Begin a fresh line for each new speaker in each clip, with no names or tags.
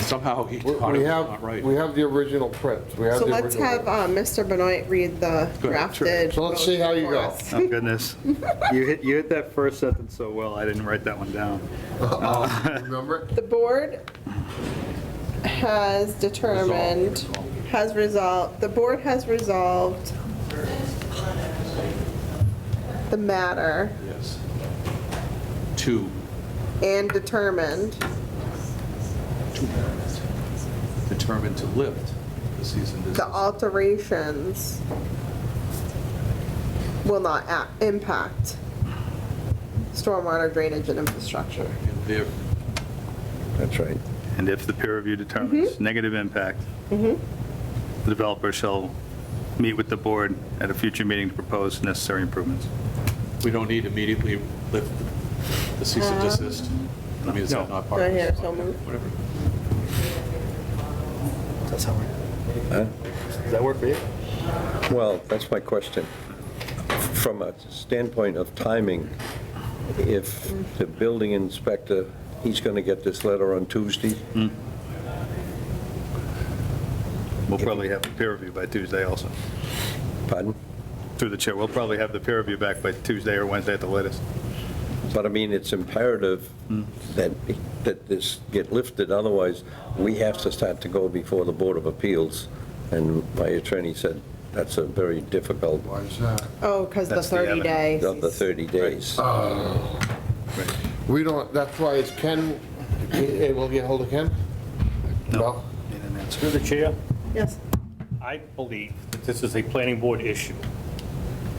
Somehow he
We
thought
we
it was not
have,
right.
we have the original print. We have
So
the
let's
original
have
print.
uh, Mr. Benoit read the
Go ahead, sure.
drafted.
So let's see how you
motion
go.
for us.
Oh, goodness. You hit, you hit that first sentence so well, I didn't write that one down.
uh,
Remember it?
The board has determined, has resolved, the board has resolved the matter
Yes. Two,
and determined
two parents determined to lift the cease and
the
desist.
alterations will not a- impact stormwater drainage and infrastructure.
And there-
That's right.
And if the peer review determines negative impact,
Mm-hmm.
the developer shall meet with the board at a future meeting to propose necessary improvements.
We don't need immediately lift the cease and desist. I mean, is that
No.
not part of
Right here,
this?
so moved.
Whatever.
That's how
Huh?
Does that work for you?
Well, that's my question. From a standpoint of timing, if the building inspector, he's going to get this letter on Tuesday,
We'll probably have the peer review by Tuesday also.
pardon?
Through the chair, we'll probably have the peer review back by Tuesday or Wednesday at the latest.
But I mean, it's imperative that, that this get lifted, otherwise we have to start to go before the Board of Appeals. And my attorney said that's a very difficult,
Why is that?
Oh, because the
That's the
30
evidence.
days.
of the 30 days.
We don't, that's why it's Ken, eh, eh, we'll get hold of Ken? No.
Need an answer.
Through the chair,
Yes.
I believe that this is a planning board issue.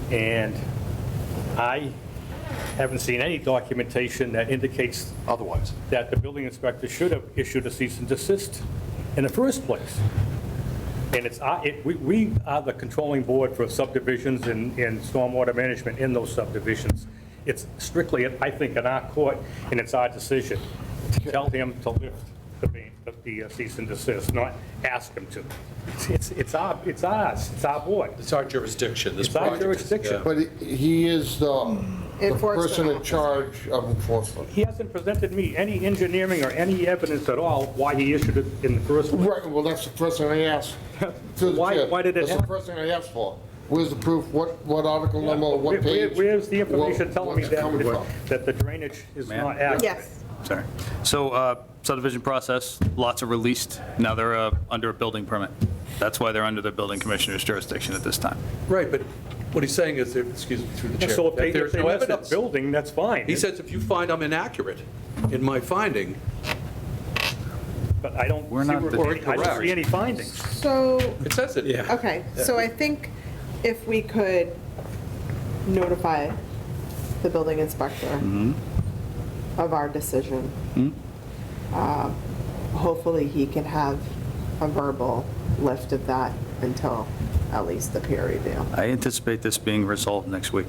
And I haven't seen any documentation that indicates
Otherwise,
that the building inspector should have issued a cease and desist in the first place. And it's, our- it- we- we are the controlling board for subdivisions and and stormwater management in those subdivisions. It's strictly, I think, in our court, and it's our decision to tell him to lift the ban- the uh, cease and desist, not ask him to. It's- It's it's our, it's ours, it's our board,
it's our jurisdiction, this
it's our
project.
jurisdiction.
But he- he is the the
Enforcement
person in
officer.
charge of enforcement.
He hasn't presented me any engineering or any evidence at all why he issued it in the first place.
Right, well, that's the first thing I asked. through the
Why-
chair.
why did it
That's the
happen?
first thing I asked for. Where's the proof? What, what article number,
Where-
what
where-
page?
Where's the information
Where-
telling me
where's it coming
that,
from?
that the drainage is
Ma'am?
not accurate?
Yes.
Sorry. So uh, subdivision process, lots are released. Now they're uh, under a building permit. That's why they're under the building commissioner's jurisdiction at this time.
Right, but what he's saying is, there- excuse me, through the chair.
So if they,
that there's
if they
no
lift
evidence.
up building, that's fine.
He says, if you find I'm inaccurate in my finding,
But I don't see,
We're not the-
where- I don't
Correct.
see any findings.
So
it says it. Yeah.
Okay, so I think if we could notify the building inspector of our decision, uh, hopefully he can have a verbal lift of that until at least the peer review.
I anticipate this being resolved next week,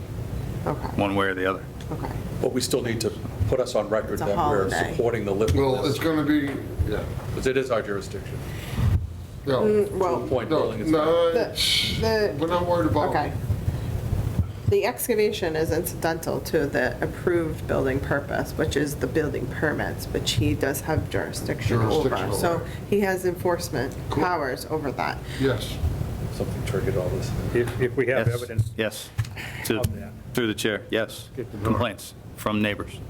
Okay,
one way or the other.
okay.
But we still need to put us on record
It's a
that we're
holiday.
supporting the lift,
Well, it's
because
gonna be, yeah,
it is our jurisdiction.
no,
Well,
Point
no,
building inspector.
no,
Mm. the,
we're
the,
not worried about
okay.
it.
The excavation is incidental to the approved building purpose, which is the building permits, which he does have jurisdiction over.
Jurisdiction
So
over.
he has enforcement powers over that.
Yes.
Something triggered all this.
If, if we have
Yes.
evidence.
Yes. To-
Of that.
Through the chair, yes. Complaints from neighbors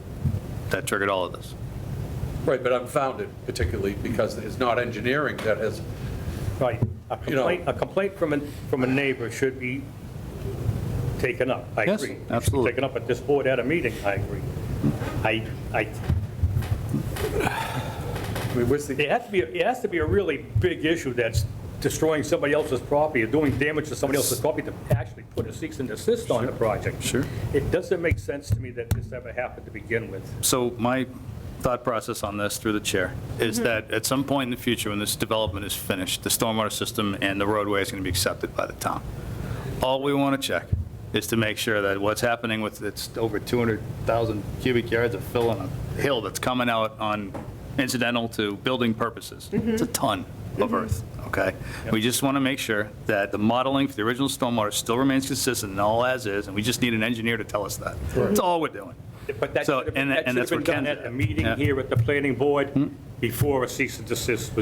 that triggered all of this.
Right, but I'm founded particularly because it's not engineering that has,
Right. A
You know-
complaint, a complaint from a, from a neighbor should be taken up. I
Yes,
agree. It should be
absolutely.
Taken up at this board at a meeting, I agree. I, I,
I mean, where's the,
it has to be, it has to be a really big issue that's destroying somebody else's property or doing damage to somebody else's property to actually put a cease and desist on the project.
Sure.
It doesn't make sense to me that this ever happened to begin with.
So my thought process on this, through the chair, is that at some point in the future, when this development is finished, the stormwater system and the roadway is going to be accepted by the town. All we want to check is to make sure that what's happening with, it's over 200,000 cubic yards of fill on a hill that's coming out on incidental to building purposes. It's a ton of earth, okay? We just want to make sure that the modeling for the original stormwater still remains consistent and all as is, and we just need an engineer to tell us that. That's all we're doing.
But that
So,
should have
and-
been-
and
that should have
that's
been
what Ken
done
did.
at the meeting
Yeah.
here at the planning board before a cease and desist was